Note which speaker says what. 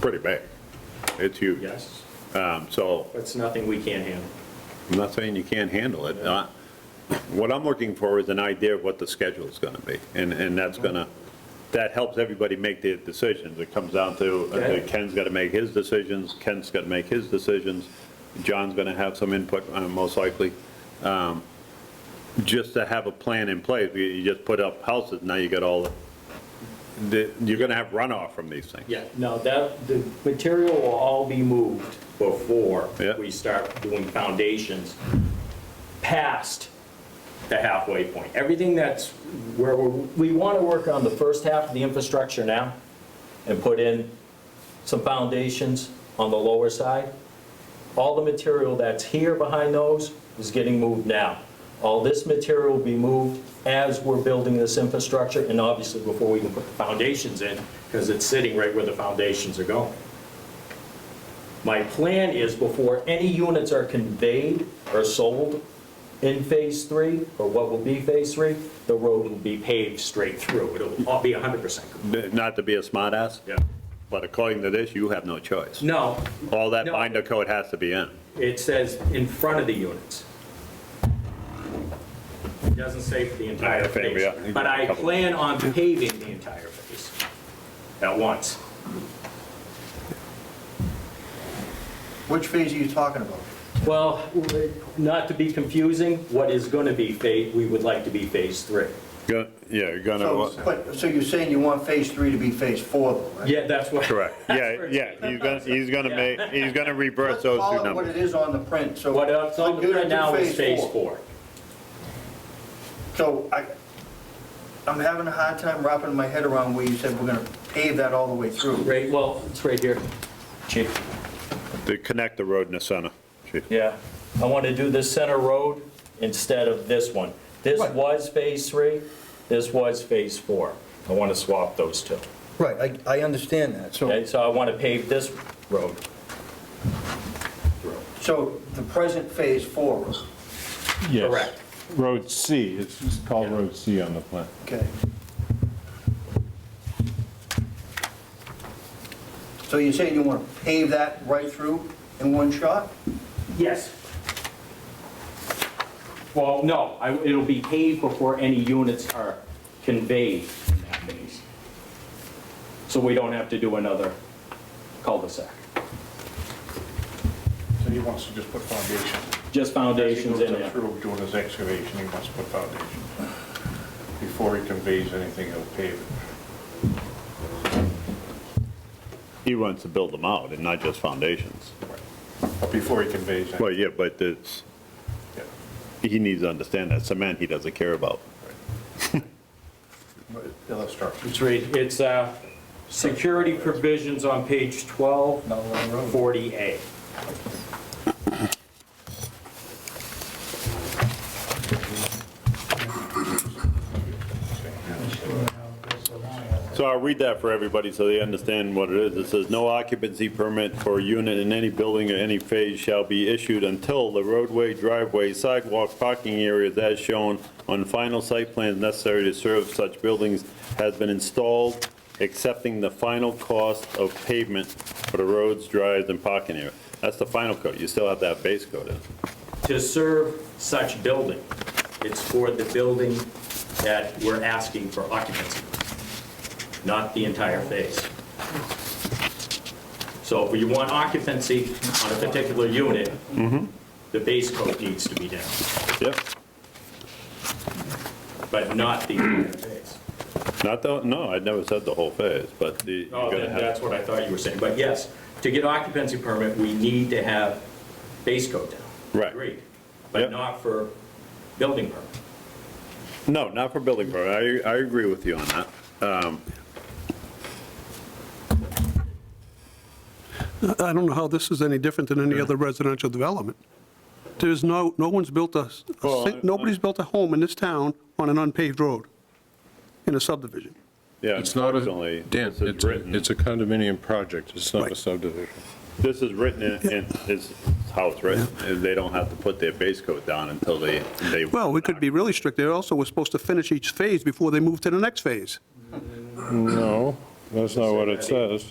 Speaker 1: pretty big. It's huge.
Speaker 2: Yes,
Speaker 1: Um, So
Speaker 2: but it's nothing we can't handle.
Speaker 1: I'm not saying you can't handle it. Uh, What I'm looking for is an idea of what the schedule is going to be, and, and that's going to, that helps everybody make their decisions. It comes down to,
Speaker 2: Okay.
Speaker 1: uh, Ken's got to make his decisions, Kent's got to make his decisions, John's going to have some input, uh, most likely. Um, Just to have a plan in place, you- you just put up houses, now you got all, the- the, you're going to have runoff from these things.
Speaker 2: Yeah, no, that, the material will all be moved before
Speaker 1: Yeah.
Speaker 2: we start doing foundations past the halfway point. Everything that's where we're, we want to work on the first half of the infrastructure now and put in some foundations on the lower side. All the material that's here behind those is getting moved now. All this material will be moved as we're building this infrastructure and obviously before we can put the foundations in, because it's sitting right where the foundations are going. My plan is before any units are conveyed or sold in Phase 3, or what will be Phase 3, the road will be paved straight through. It'll all be 100% complete.
Speaker 1: Not to be a smartass,
Speaker 2: Yeah.
Speaker 1: but according to this, you have no choice.
Speaker 2: No,
Speaker 1: All that
Speaker 2: No.
Speaker 1: binder coat has to be in.
Speaker 2: it says in front of the units. It doesn't say for the entire
Speaker 1: Yeah, fair,
Speaker 2: phase.
Speaker 1: yeah.
Speaker 2: But I plan on paving the entire phase at once.
Speaker 3: Which phase are you talking about?
Speaker 2: Well, not to be confusing, what is going to be Phase, we would like to be Phase 3.
Speaker 1: Go- Yeah, you're
Speaker 3: So,
Speaker 1: gonna,
Speaker 3: but, so you're saying you want phase three to be phase four, though, right?
Speaker 2: Yeah, that's what.
Speaker 1: correct, yeah,
Speaker 2: That's
Speaker 1: yeah, he's gonna, he's gonna make, he's gonna reverse
Speaker 3: Let's
Speaker 1: those
Speaker 3: call
Speaker 1: two
Speaker 3: it what it
Speaker 1: numbers.
Speaker 3: is on the print, so.
Speaker 2: What else on
Speaker 3: I'm
Speaker 2: the
Speaker 3: gonna
Speaker 2: grid
Speaker 3: do
Speaker 2: now is Phase 4.
Speaker 3: So I, I'm having a hard time wrapping my head around where you said we're gonna pave that all the way through.
Speaker 2: Right, well, it's right here. Chief.
Speaker 1: To connect the road in the center. Chief.
Speaker 2: Yeah, I want to do this center road instead of this one. This
Speaker 3: Right.
Speaker 2: was Phase 3, this was Phase 4. I want to swap those two.
Speaker 3: Right, I, I understand that, so.
Speaker 2: Okay, so I want to pave this road.
Speaker 3: So the present phase four,
Speaker 4: Yes.
Speaker 2: Correct.
Speaker 4: Road C, it's just called Road C on the plan.
Speaker 3: okay. So you're saying you wanna pave that right through in one shot?
Speaker 2: Yes. Well, no, I- it'll be paved before any units are conveyed in that phase. So we don't have to do another cul-de-sac.
Speaker 5: So he wants to just put foundation.
Speaker 2: Just foundations in
Speaker 5: As he goes
Speaker 2: there.
Speaker 5: Through doing his excavation, he wants to put foundation. Before he conveys anything, he'll pave it.
Speaker 1: He wants to build them out and not just foundations.
Speaker 5: But Before he conveys
Speaker 1: Well,
Speaker 5: anything.
Speaker 1: yeah, but it's,
Speaker 5: Yeah.
Speaker 1: he needs to understand that cement he doesn't care about.
Speaker 5: He'll have structure.
Speaker 2: It's right, it's uh, security provisions on page 12,
Speaker 5: Not along the road.
Speaker 2: 40A.
Speaker 1: So I'll read that for everybody so they understand what it is. It says, "No occupancy permit for a unit in any building or any phase shall be issued until the roadway, driveway, sidewalk, parking areas as shown on final site plans necessary to serve such buildings has been installed, accepting the final cost of pavement for the roads, drives, and parking area." That's the final coat. You still have that base coat in.
Speaker 2: To serve such building, it's for the building that we're asking for occupancy, not the entire phase. So if you want occupancy on a particular unit,
Speaker 1: Mm-hmm.
Speaker 2: the base coat needs to be down,
Speaker 1: Yep.
Speaker 2: but not the entire phase.
Speaker 1: Not the, no, I never said the whole phase, but the. you're
Speaker 2: Oh,
Speaker 1: gonna
Speaker 2: then
Speaker 1: have-
Speaker 2: that's what I thought you were saying, but yes, to get occupancy permit, we need to have base coat down.
Speaker 1: Right.
Speaker 2: Agreed,
Speaker 1: Yep.
Speaker 2: but not for building permit.
Speaker 1: No, not for building permit. I, I agree with you on that.
Speaker 6: I don't know how this is any different than any other residential development. There's no, no one's built a, a
Speaker 1: Well,
Speaker 6: sing-
Speaker 1: I-
Speaker 6: nobody's built a home in this town on an unpaved road in a subdivision.
Speaker 1: Yeah,
Speaker 4: It's not a,
Speaker 1: unfortunately,
Speaker 4: Dan,
Speaker 1: this is
Speaker 4: it's a-
Speaker 1: written,
Speaker 4: it's a condominium project, it's not a
Speaker 6: Right.
Speaker 4: subdivision.
Speaker 1: this is written in, in- it's how it's written, and they don't have to put their base coat down until they, they.
Speaker 6: Well, we could be really strict. They also were supposed to finish each phase before they move to the next phase.
Speaker 4: No, that's not what it says.